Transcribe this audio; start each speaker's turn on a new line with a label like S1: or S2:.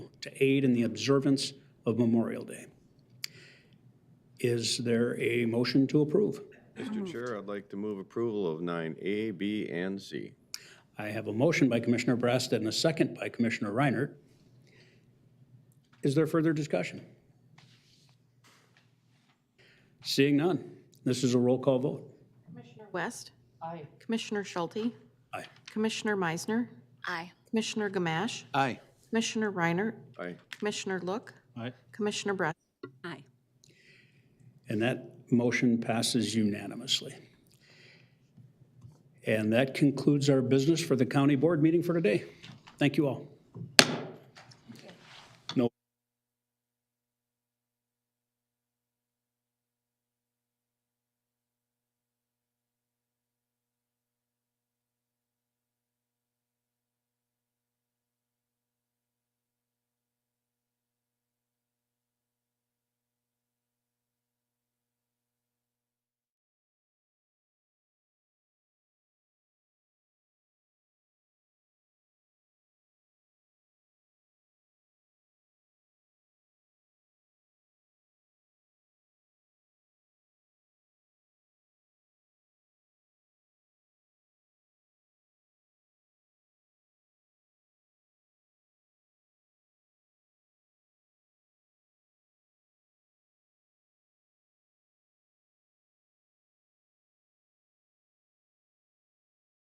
S1: to aid in the observance of Memorial Day. Is there a motion to approve?
S2: Mr. Chair, I'd like to move approval of nine A, B, and C.
S1: I have a motion by Commissioner Brassad and a second by Commissioner Reinert. Is there further discussion? Seeing none, this is a roll call vote.
S3: West. Aye. Commissioner Schulte.
S1: Aye.
S3: Commissioner Meisner.
S4: Aye.
S3: Commissioner Gamache.
S5: Aye.
S3: Commissioner Reiner.
S2: Aye.
S3: Commissioner Look.
S5: Aye.
S3: Commissioner Brass.
S4: Aye.
S1: And that motion passes unanimously. And that concludes our business for the county board meeting for today. Thank you all.